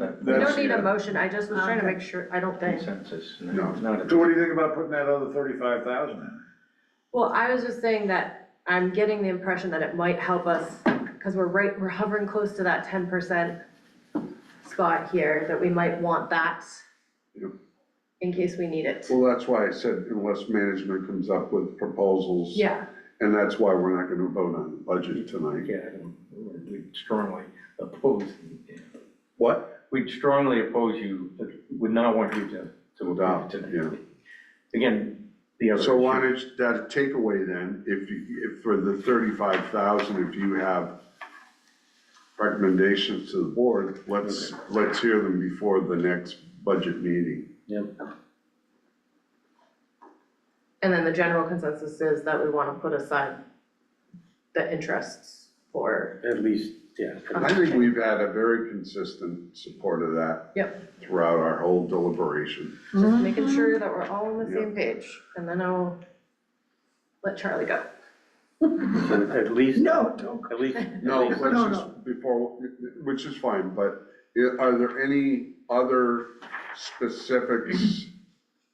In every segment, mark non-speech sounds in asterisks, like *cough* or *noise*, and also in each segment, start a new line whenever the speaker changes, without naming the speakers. We
That's-
don't need a motion, I just was trying to
Okay.
make sure, I don't think.
consensus.
No.
Not a-
So what do you think about putting that other thirty-five thousand in?
Well, I was just saying that I'm getting the impression that it might help us, because we're right, we're hovering close to that ten percent spot here, that we might want that
Yep.
in case we need it.
Well, that's why I said unless management comes up with proposals.
Yeah,
And that's why we're not gonna vote on the budget tonight.
Yeah, I don't- we'd strongly oppose,
What?
we'd strongly oppose you, would not want you to, to adopt
Adopt,
tonight.
yeah.
Again, the other.
So why
issue-
don't, you- that takeaway then, if you, if for the thirty-five thousand, if you have recommendations to the board, let's, let's hear them before the next budget meeting.
and then the general consensus is that we wanna put aside the interests for,
At least, yeah.
I think we've had a very consistent support of that.
Yep. Mm-hmm.
Throughout our whole deliberation.
just making sure that we're all on the
Yeah.
same page, and then I'll let Charlie go.
At least.
*laughs* No, don't.
At least.
No,
at least-
let's
No,
just, before, which is fine, but i- are there any other specifics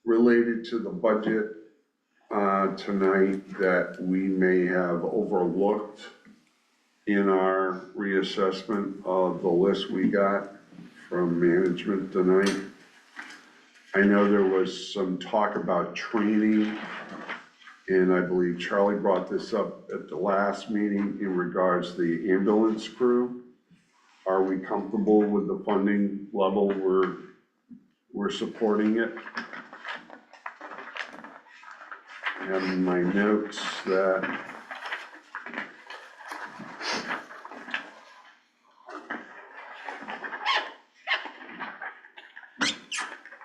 related to the budget uh, tonight that we may have overlooked in our reassessment of the list we got from management tonight? I know there was some talk about training. And I believe Charlie brought this up at the last meeting in regards to the ambulance crew. Are we comfortable with the funding level? We're, we're supporting it. I have in my notes that.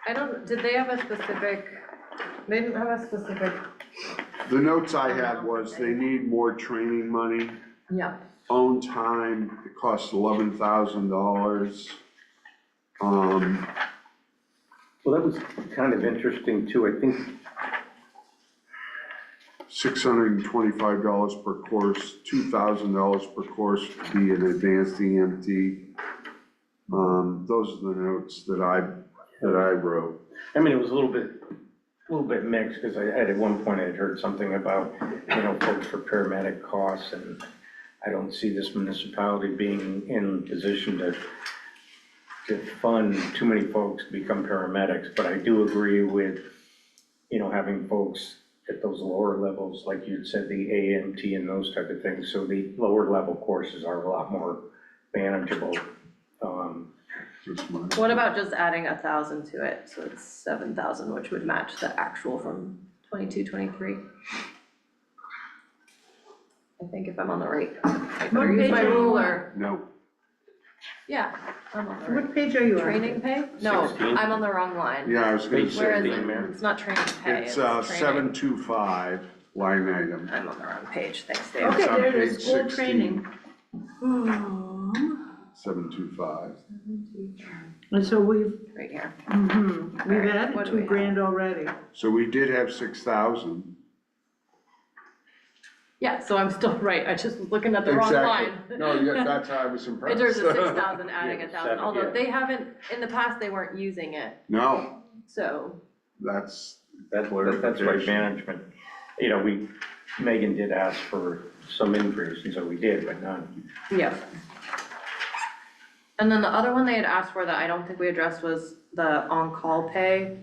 I don't, did they have a specific, they didn't have a specific,
The notes I had was they need more training money.
yeah,
own time, it costs eleven thousand dollars. Um,
Well, that was kind of interesting too. I think
six hundred and twenty-five dollars per course, two thousand dollars per course to be an advanced EMT. Um, those are the notes that I, that I wrote.
I mean, it was a little bit, a little bit mixed, because I had, at one point, I'd heard something about, you know, folks for paramedic costs, and I don't see this municipality being in position to, to fund too many folks to become paramedics, but I do agree with, you know, having folks at those lower levels, like you'd said, the AMT and those type of things, so the lower level courses are a lot more manageable. Um,
That's mine.
what about just adding a thousand to it, so it's seven thousand, which would match the actual from twenty-two, twenty-three? I think if I'm on the right, I
What
better use
page
my
are you on?
ruler,
No,
yeah, I'm on the right.
What page are you on?
Training pay? No,
16?
I'm on the wrong line,
yeah, I was gonna
Page
where
say,
is
16,
it?
Mary.
It's not training pay, it's
it's, uh, seven
training,
two five line item.
I'm on the wrong page, thanks Dave.
Okay,
It's on
there it is,
page
school
16.
training.
Seven two five.
And so we've,
Right here,
mhm, we've
Alright, what
added
do we
two
have?
grand already.
So we did have six thousand.
yeah, so I'm still *laughs* right, I just was looking at the wrong line.
Exactly. No, yeah, that's how I
*laughs*
was impressed.
In terms of six thousand, adding a thousand,
seven,
although
yeah.
they haven't, in the past, they weren't using it,
*laughs* No,
so,
that's,
That, that- that's right,
Clarification.
management. You know, we, Megan did ask for some increase, and so we did, but not,
yeah. And then the other one they had asked for that I don't think we addressed was the on-call pay.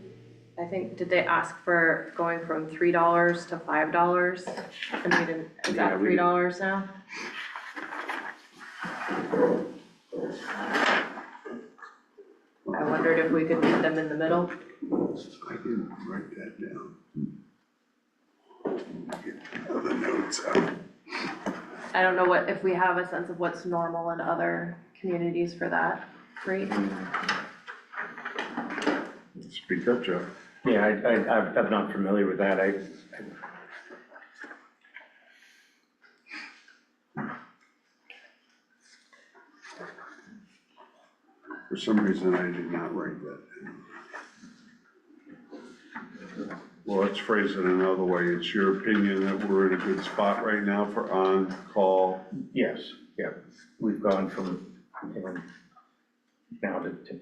I think, did they ask for going from three dollars to five dollars? And we didn't, is
Yeah,
that
we
three
didn't.
dollars now? I wondered if we could meet them in the middle.
I didn't write that down. Get The notes uh, out.
I don't know what, if we have a sense of what's normal in other communities for that rate.
Speak up, Jeff.
yeah, I, I, I'm- I'm not familiar with that. I,
For some reason, I did not write that down. Well, let's phrase it another way. It's your opinion that we're in a good spot right now for on-call
yes, yeah, we've gone from, you know, now to, to